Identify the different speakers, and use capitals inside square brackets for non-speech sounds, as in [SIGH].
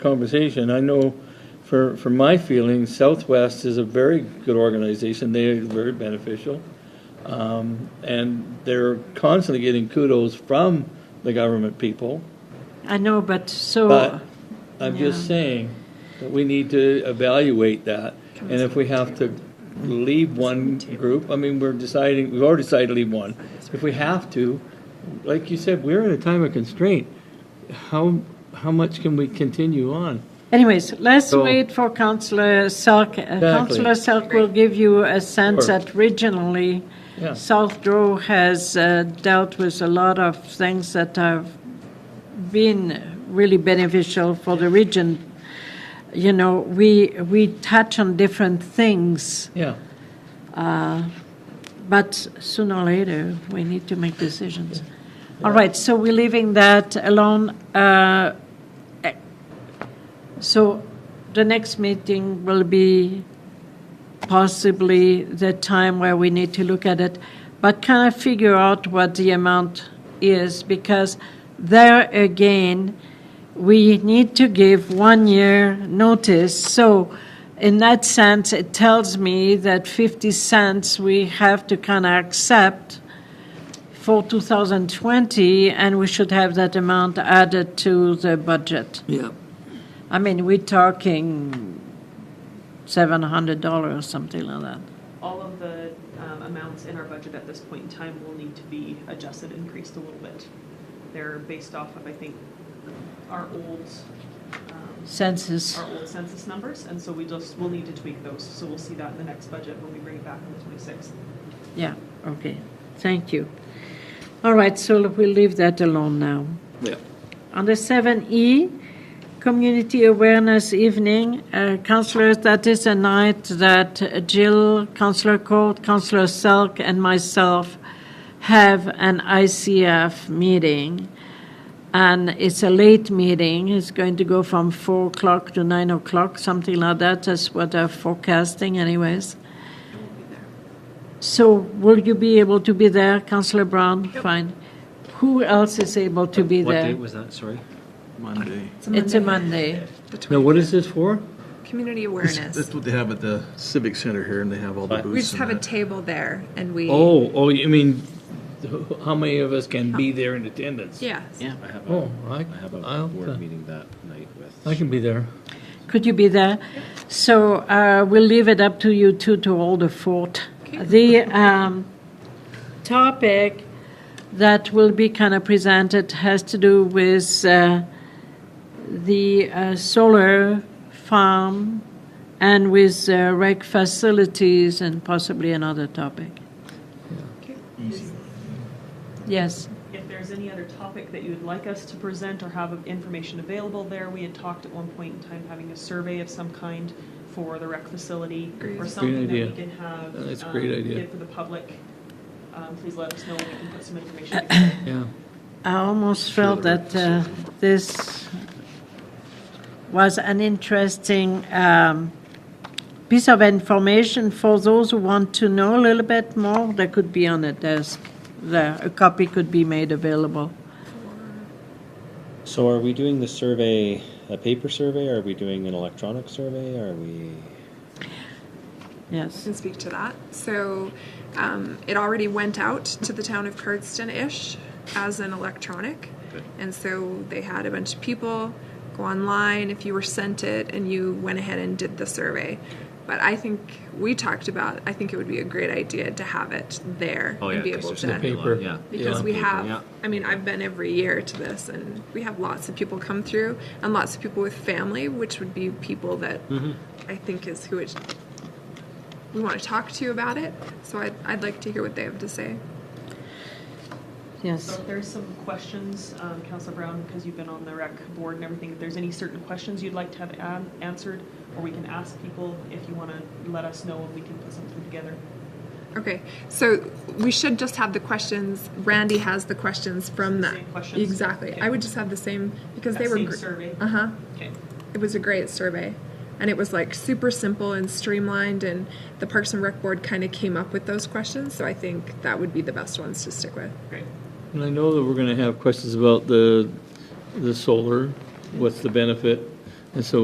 Speaker 1: conversation. I know for, for my feeling, Southwest is a very good organization. They are very beneficial. Um, and they're constantly getting kudos from the government people.
Speaker 2: I know, but so,
Speaker 1: But I'm just
Speaker 2: Oh, Yeah.
Speaker 1: saying that we need to evaluate that. And if we have to leave one group, I mean, we're deciding, we've already decided to leave one. If we have to, like you said, we're in a time of constraint. How, how much can we continue on?
Speaker 2: anyways, let's
Speaker 1: So-
Speaker 2: wait for Councillor Selk. Uh, Councillor Selk will give you a sense
Speaker 1: Sure.
Speaker 2: that regionally,
Speaker 1: Yeah.
Speaker 2: South Row has uh, dealt with a lot of things that have been really beneficial for the region. You know, we, we touch on different things,
Speaker 1: Yeah.
Speaker 2: but sooner or later, we need to make decisions. All right, so we're leaving that alone. Uh, eh, So the next meeting will be possibly the time where we need to look at it, but kind of figure out what the amount is, because there again, we need to give one year notice. So in that sense, it tells me that 50 cents we have to kind of accept for 2020, and we should have that amount added to the budget.
Speaker 3: Yeah,
Speaker 2: I mean, we're talking $700 or something like that.
Speaker 4: all of the um, amounts in our budget at this point in time will need to be adjusted, increased a little bit. They're based off of, I think, our old, um,
Speaker 2: Census.
Speaker 4: our old census numbers, and so we just, we'll need to tweak those. So we'll see that in the next budget when we bring it back on the 26th.
Speaker 2: Yeah, okay, thank you. All right, so we'll leave that alone now.
Speaker 3: yeah.
Speaker 2: Under 7E, Community Awareness Evening, uh, councillors, that is a night that Jill, Councillor Court, Councillor Selk, and myself have an ICF meeting. And it's a late meeting, it's going to go from 4 o'clock to 9 o'clock, something like that, that's what they're forecasting anyways. So will you be able to be there, Councillor Brown? Fine. Who else is able to be
Speaker 5: What
Speaker 2: there?
Speaker 5: date was that, sorry?
Speaker 3: Monday.
Speaker 2: It's a Monday.
Speaker 1: Now, what is this for?
Speaker 6: Community
Speaker 3: That's
Speaker 6: awareness.
Speaker 3: what they have at the Civic Center here, and they have all the
Speaker 6: We
Speaker 3: booths.
Speaker 6: just have a table there and we.
Speaker 1: Oh, oh, you mean, how many of us can be there in attendance?
Speaker 6: Yeah.
Speaker 5: I have
Speaker 1: Oh,
Speaker 5: a,
Speaker 1: I,
Speaker 5: I have a
Speaker 1: I'll, uh,
Speaker 5: board meeting that night with.
Speaker 1: I can be there.
Speaker 2: Could you be there? So uh, we'll leave it up to you two to hold the fort. The um, topic that will be kind of presented has to do with uh, the uh, solar farm and with uh, rec facilities and possibly another topic. Yes.
Speaker 4: If there's any other topic that you would like us to present or have information available there, we had talked at one point in time having a survey of some kind for the rec facility or something that
Speaker 1: idea.
Speaker 4: we can have.
Speaker 1: That's a
Speaker 4: um,
Speaker 1: great idea.
Speaker 4: Give for the public. Um, Please let us know, we can put some
Speaker 1: [CLEARS THROAT]
Speaker 4: information together.
Speaker 1: Yeah.
Speaker 2: I almost felt that uh, this was an interesting um, piece of information for those who want to know a little bit more. That could be on the desk. There, a copy could be made available.
Speaker 5: So are we doing the survey, a paper survey? Are we doing an electronic survey? Are we?
Speaker 2: Yes.
Speaker 6: Can speak to that. So um, it already went out to the town of Cardston-ish as an electronic. And so they had a bunch of people go online if you were sent it and you went ahead and did the survey. But I think we talked about, I think it would be a great idea to have it there
Speaker 5: Oh,
Speaker 6: and be able to.
Speaker 1: paper.
Speaker 5: Yeah.
Speaker 6: because we
Speaker 5: paper,
Speaker 6: have
Speaker 5: yeah.
Speaker 6: i mean i've been every year to this and we have lots of people come through and lots of people with family which would be people that i think is who it, we want to talk to about it so I'd, I'd like to hear what they have to say
Speaker 2: Yes.
Speaker 4: So if there's some questions, um, Councilor Brown, because you've been on the rec board and everything, if there's any certain questions you'd like to have an- answered, or we can ask people if you want to let us know and we can put something together.
Speaker 6: okay so we should just have the questions randy has the questions from that
Speaker 4: Same questions?
Speaker 6: exactly
Speaker 4: Okay.
Speaker 6: i would just have the same because
Speaker 4: That
Speaker 6: they were
Speaker 4: same
Speaker 6: gr-
Speaker 4: survey?
Speaker 6: uh-huh
Speaker 4: Okay.
Speaker 6: it was a great survey and it was like super simple and streamlined and the parks and rec board kind of came up with those questions so i think that would be the best ones to stick with
Speaker 4: Great.
Speaker 1: And I know that we're going to have questions about the, the solar, what's the benefit? And so